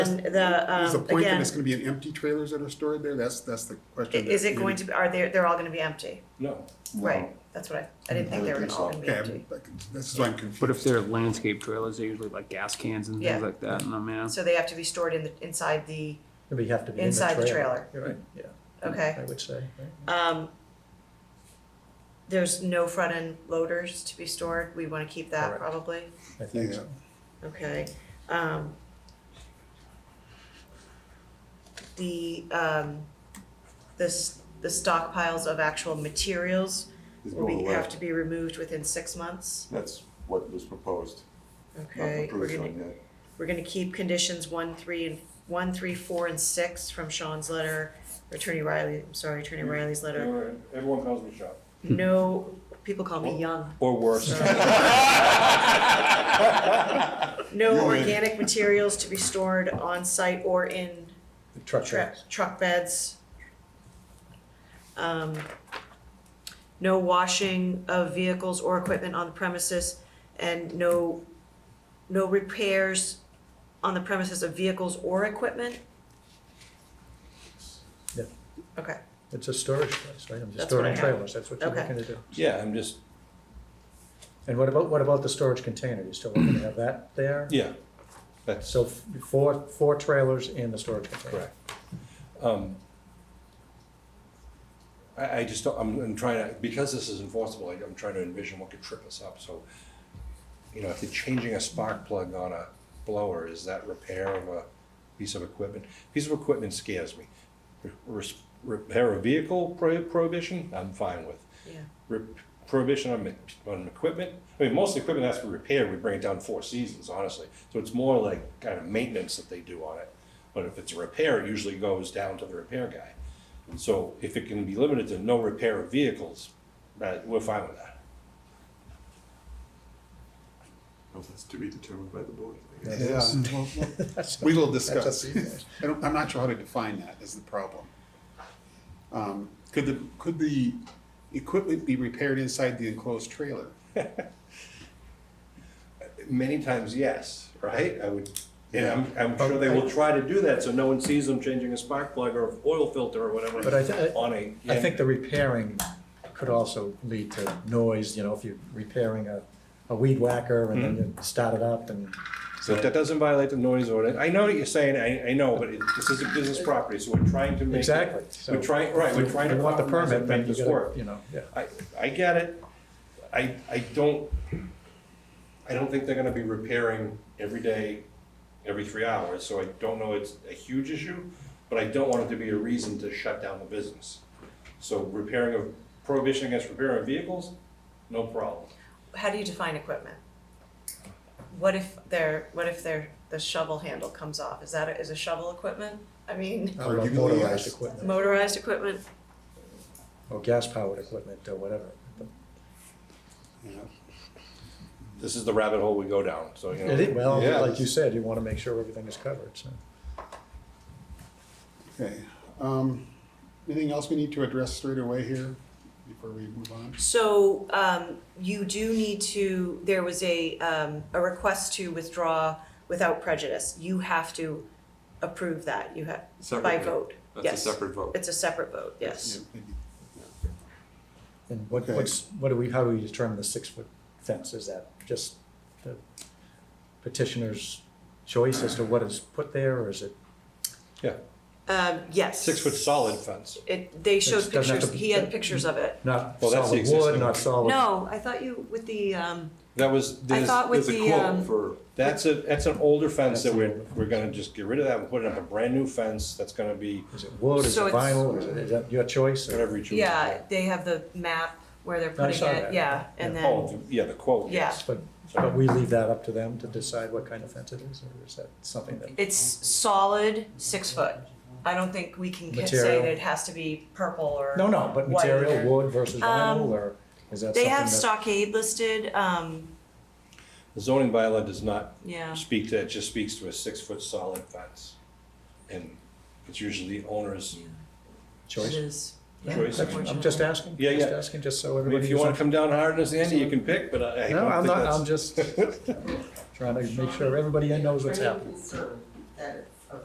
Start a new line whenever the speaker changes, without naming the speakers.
And the,
Is the
um,
point that
again,
it's gonna be an empty trailers that are stored there? That's, that's the
i-
question.
is
that
it
we-
going to, be? are they, they're all gonna be empty?
No.
Right, that's what I, I didn't think they were all gonna be
Okay,
empty.
I'm- this is why I'm confused.
But if they're landscape trailers, they're usually like gas cans and
Yeah.
things like that, and I'm, yeah.
So they have to be stored in the, inside the,
But you have to be in the trailer.
Inside the
You're right, yeah, I
okay.
would say, right?
Um, there's no front end loaders to be stored, we wanna keep that
Correct.
probably,
I think
Yeah.
so.
okay? Um, the, um, this, the stockpiles of actual materials
It's
Oh,
will be,
going away.
have to be removed within six months,
That's what was proposed, not
okay? We're
approved
gonna
on yet.
We're gonna keep conditions one, three, and, one, three, four, and six from Sean's letter, or Attorney Riley, I'm sorry, Attorney Riley's letter.
Everyone calls me Sean.
No, people call me young.
Or worse.
No organic materials to be stored on site or in
The truck
tra-
beds.
truck beds. Um, no washing of vehicles or equipment on the premises, and no, no repairs on the premises of vehicles or equipment?
Yeah.
Okay.
It's a storage place, right? I'm just
That's what I
storing
have.
trailers, that's what you're
Okay.
looking to do.
Yeah, I'm just,
And what about, what about the storage container? You still looking to have that there?
yeah, that's
So f- four, four trailers in the storage container.
correct. Um, I, I just, don't- I'm, I'm trying to, because this is enforceable, like, I'm trying to envision what could trip us up, so. You know, if they're changing a spark plug on a blower, is that repair of a piece of equipment? Piece of equipment scares me. Re- res- Repair a vehicle pro- prohibition, I'm fine with.
Yeah.
rep- prohibition on, ma- on equipment. I mean, most equipment has to be repaired, we bring it down four seasons, honestly. So it's more like kind of maintenance that they do on it. But if it's a repair, it usually goes down to the repair guy. So if it can be limited to no repair of vehicles, that, we're fine with that.
Well, That's to be determined by the board. I guess.
Yeah, well, well, we will discuss.
That's up
I don't, I'm not sure how to define that is the problem. Um, could the, could the equipment be repaired inside the enclosed trailer?
Many times, yes, right? I would, and I'm, I'm sure they will try to do that, so no one sees them changing a spark plug or oil filter or whatever
But I thi-
on a.
I think the repairing could also lead to noise, you know, if you're repairing a, a weed whacker and then
Mm-hmm.
you start it up and
So that doesn't violate the noise ordinance. I know what you're saying, I, I know, but it, this is a business property, so we're trying to make. it-
Exactly, so-
We're trying, right, we're trying to.
you want the
compromise
permit,
and
then
make
you
this
gotta,
work.
you know, yeah.
I, I get it. I, I don't, I don't think they're gonna be repairing every day, every three hours, so I don't know it's a huge issue, but I don't want it to be a reason to shut down the business. So repairing of, prohibition against repairing vehicles, no problem.
How do you define equipment? What if their, what if their, the shovel handle comes off? Is that, a- is a shovel equipment? I mean,
Or
Arguably,
motorized
yes.
equipment,
motorized equipment?
or gas-powered equipment, or whatever.
Yeah.
This is the rabbit hole we go down, so, you know.
It is- Well,
Yeah.
like you said, you wanna make sure everything is covered, so.
Okay, um, anything else we need to address straight away here before we move on?
So um, you do need to, there was a, um, a request to withdraw without prejudice. You have to approve that, you have, by
Separately.
vote.
That's a
Yes.
separate vote.
It's a separate vote, yes.
And what,
Okay.
what's, what do we, how do we determine the six-foot fence? Is that just the petitioner's choice as to what is put there, or is it?
Yeah,
Um, Yes.
six foot solid fence.
It, they showed
It doesn't have
pictures,
to- Oh.
he had pictures of it.
Not
Well, that's the
solid wood,
existing
not
one.
solid.
No, I thought you, with the, um,
That was,
I
there's,
thought with
There's a
the. um,
quote for,
that's a, that's an older fence that
That's
we're,
an older
we're gonna just get rid of that and put in a brand new fence that's gonna be
Is it wood, is it
So it's-
vinyl, is it, is that your choice? or-
whatever you choose.
Yeah, they have the map where they're putting
saw
it,
that.
yeah, and
Yeah.
Oh,
then,
the- yeah, the quote,
yeah.
yes.
But, but we leave that up to them to decide what kind of fence it is, or is that something that,
It's solid, six foot. I don't think we can ca- say
Material.
that it has to be purple or
no, no, but
white
material,
or-
wood versus
Um,
vinyl, or is that something that?
They have stockade listed, um,
The zoning bylaw does not
yeah,
speak to, it just speaks to a six foot solid fence. And it's usually the owner's
it
Choice?
is. Yeah,
choice. I mean,
I'm just asking,
Yeah,
just
yeah.
asking, just
I
so
mean,
everybody.
If you
is
wanna
on-
come down hard as the end, you can pick, but I I
No,
don't
I'm
think
not, I'm
that's.
just trying to make sure everybody knows what's happening.
concerned that